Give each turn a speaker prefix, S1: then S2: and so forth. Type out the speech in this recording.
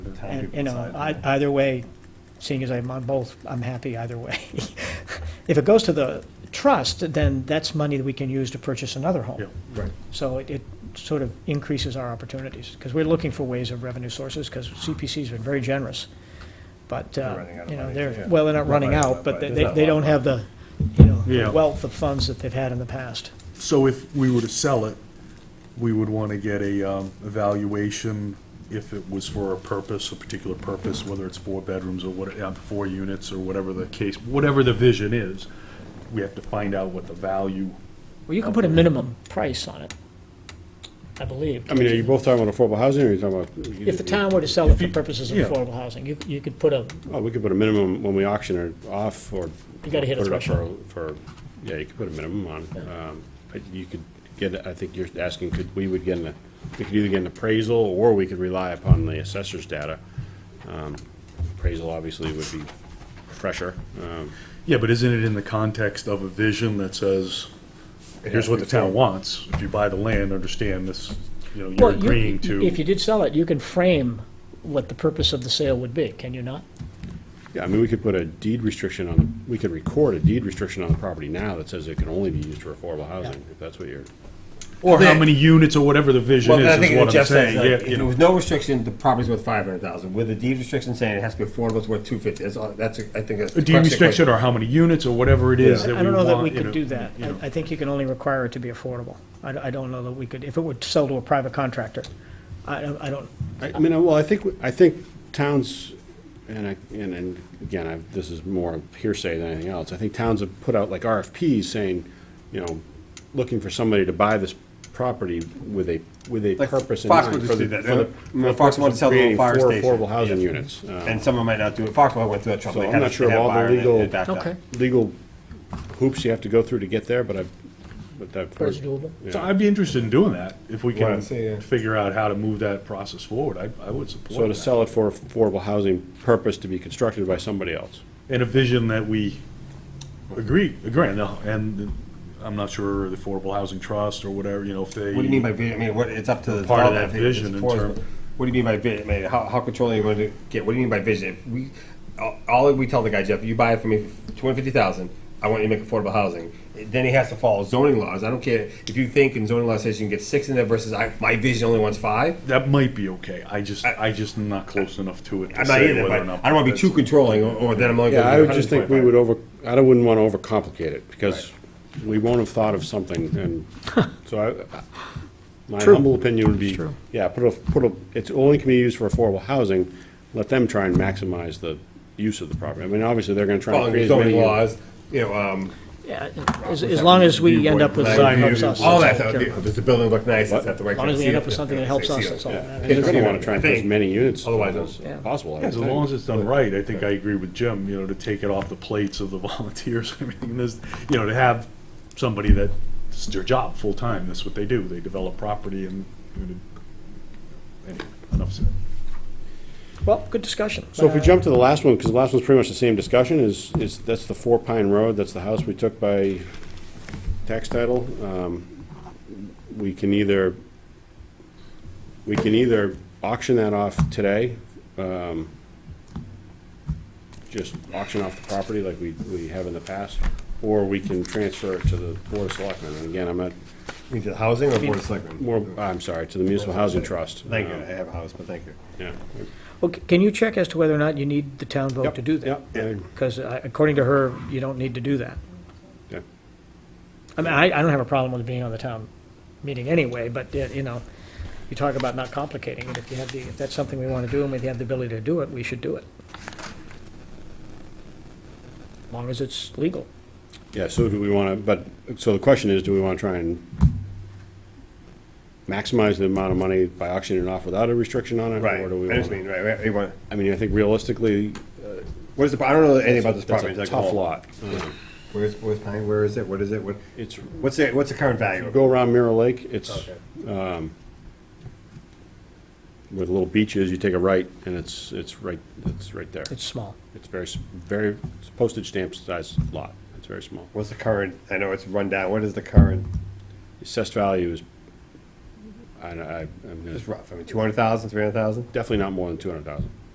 S1: town
S2: And,
S1: people
S2: you know,
S1: decide.
S2: I- either way, seeing as I'm on both, I'm happy either way. If it goes to the trust, then that's money that we can use to purchase another
S1: Yeah,
S2: home.
S1: right.
S2: So it, it sort of increases our opportunities, because we're looking for ways of revenue sources, because CPC's been very generous. But,
S1: They're
S2: uh,
S1: running out of
S2: you know,
S1: money,
S2: they're,
S1: yeah.
S2: well, they're not running out, but they, they they don't have the, you know,
S1: Yeah.
S2: the wealth of funds that they've had in the past.
S1: So if we were to sell it, we would want to get a um, evaluation if it was for a purpose, a particular purpose, whether it's four bedrooms or what, uh, four units or whatever the case, whatever the vision is, we have to find out what the value.
S2: Well, you can put a minimum price on it, I believe.
S3: I mean, are you both talking about affordable housing, or are you talking about?
S2: If the town were to sell it
S1: If
S2: for
S1: you-
S2: purposes of
S1: yeah.
S2: affordable housing, you, you could put a,
S3: Oh, we could put a minimum when we auction it off, or.
S2: You gotta hit a
S3: put it up for- For, yeah, you could put a minimum on, um, but you could get, I think you're asking, could, we would get an, we could either get an appraisal, or we could rely upon the assessor's data. Um, Appraisal obviously would be fresher, um,
S1: Yeah, but isn't it in the context of a vision that says, here's what the town wants? If you buy the land, understand this, you know, you're
S2: well, you-
S1: agreeing to.
S2: if you did sell it, you can frame what the purpose of the sale would be, can you not?
S3: Yeah, I mean, we could put a deed restriction on, the- we could record a deed restriction on the property now that says it can only be used for affordable housing, if that's what you're,
S1: Or how
S4: Then-
S1: many units or whatever the vision
S4: Well, I
S1: is,
S4: think
S1: is
S4: what
S1: what I'm
S4: Jeff said,
S1: saying.
S4: like,
S1: Yeah,
S4: if
S1: you
S4: there
S1: know,
S4: was no restriction, the property's worth five hundred thousand, with a deed restriction saying it has to be affordable, it's worth two fifty, that's, all- that's, a- I think that's.
S1: a
S4: the
S1: deed
S4: crux of the
S1: restriction or how many units or whatever it is that
S2: I
S1: we want.
S2: don't know that we
S1: you know,
S2: could do that.
S1: you know.
S2: I, I think you can only require it to be affordable. I, d- I don't know that we could, if it would sell to a private contractor, I, don't- I don't,
S3: I I mean, well, I think, I think towns, and I, and, and again, I, this is more hearsay than anything else, I think towns have put out like RFPs saying, you know, looking for somebody to buy this property with a, with a
S4: Like
S3: purpose in
S4: Fox
S3: mind.
S4: would
S3: for
S4: just
S3: the-
S4: do that.
S3: for the-
S4: Yeah.
S3: for the
S4: Fox
S3: purpose
S4: wanted
S3: of
S4: to sell the
S3: creating
S4: fire
S3: four
S4: station.
S3: Affordable housing units.
S4: issue.
S3: Um,
S4: And someone might not do it, Foxwell went through that
S3: So
S4: trouble. They
S3: I'm
S4: had
S3: not
S4: a-
S3: sure
S4: they
S3: of
S4: had a
S3: all the
S4: buyer and it-
S3: legal-
S4: it backed out.
S2: okay,
S3: legal hoops you have to go through to get there, but I, but that.
S2: but it's doable.
S1: So I'd be interested in doing that, if we
S4: Well,
S1: can
S4: I'd say, yeah.
S1: figure out how to move that process forward, I, I would
S3: So
S1: support
S3: to
S1: that.
S3: sell it for affordable housing purpose to be constructed by somebody else.
S1: And a vision that we agree, agree, on. no, and I'm not sure the Affordable Housing Trust or whatever, you know, if they.
S4: What do you mean by vision, I mean, what, it's up to the.
S1: Part of that
S4: developer if it's
S1: vision in
S4: affordable.
S1: term-
S4: What do you mean by vision, I mean, how, how controlling are you gonna get, what do you mean by vision? If we, all- all we tell the guy, Jeff, you buy it for me for two hundred fifty thousand, I want you to make affordable housing, then he has to follow zoning laws, I don't care if you think in zoning laws says you can get six in there versus I, my vision only wants five,
S1: That might be okay, I just,
S4: I-
S1: I just am not close enough to it to
S4: I'm not
S1: say
S4: either,
S1: whether or
S4: but
S1: not.
S4: I don't want to be too
S1: that's-
S4: controlling, or, or then I'm only.
S3: Yeah,
S4: gonna
S3: I
S4: do
S3: would just think we
S4: 125.
S3: would over, I don't- wouldn't want to overcomplicate it, because we won't have thought of something, and so I, I- my humble opinion would be, yeah, put a, put a, it's only can be used for affordable housing, let them try and maximize the use of the property. I mean, obviously, they're gonna try and
S4: Following
S3: create as many.
S4: zoning laws, you know, um,
S2: Yeah, as, as long as we end up with something that helps us.
S4: all that
S2: that's
S4: stuff,
S2: we care
S4: you know,
S2: about.
S4: does the building look nice, is that the right?
S2: As long as we
S4: kind
S2: end
S4: of
S2: up with something that
S4: seal?
S2: helps us,
S4: Seal.
S2: that's all that matters.
S3: They're gonna wanna try and put as
S4: Thing.
S3: many units
S4: Otherwise
S3: as
S4: it's-
S3: possible. I
S1: Yeah,
S3: would
S1: As
S3: think.
S1: long as it's done right, I think I agree with Jim, you know, to take it off the plates of the volunteers and everything, and this, you know, to have somebody that, it's their job, full-time, that's what they do, they develop property and, you know, anyway, enough said.
S2: Well, good discussion.
S3: So if we jump to the last one, because the last one's pretty much the same discussion, is, is, that's the Four Pine Road, that's the house we took by tax title. Um, We can either, we can either auction that off today, um, just auction off the property like we, we have in the past, or we can transfer it to the Board of Selectmen. And again, I'm at,
S4: We did housing or board of selectmen?
S3: more, I'm sorry, to the Municipal Housing Trust.
S4: Thank you, I
S3: Um,
S4: have a house, but thank you.
S3: Yeah.
S2: Well, c- Uh, can you check as to whether or not you need the town vote to do that?
S3: Yep, yep,
S2: Because according to her, you don't need to do that.
S3: yeah.
S2: I mean, I, I don't have a problem with it being on the town meeting anyway, but, uh, you know, you talk about not complicating it. If you have the, if that's something we want to do and we have the ability to do it, we should do it. As long as it's legal.
S3: Yeah, so do we want to, but, so the question is, do we want to try and maximize the amount of money by auctioning it off without a restriction on it?
S4: Right,
S3: Or do we
S4: I
S3: want
S4: just mean,
S3: to,
S4: right, right, you want,
S3: I mean, I think realistically,
S4: what is the, I don't know anything about this
S3: that's
S4: property.
S3: a
S4: it's like,
S3: tough
S4: oh,
S3: lot. Uh,
S4: Where's, where's Pine, where is it, what is it, what,
S3: It's,
S4: what's the, what's the current value? of it?
S3: go around Mirror Lake, it's,
S4: Okay.
S3: where the little beach is, you take a right, and it's, it's right, it's right there.
S2: It's small.
S3: It's very, s- very it's a postage stamp sized lot, it's very small.
S4: What's the current, I know it's run down, what is the current,
S3: Assessed value is, I, I, I'm gonna,
S4: just rough, I mean, two hundred thousand, three hundred thousand?
S3: definitely not more than two hundred thousand.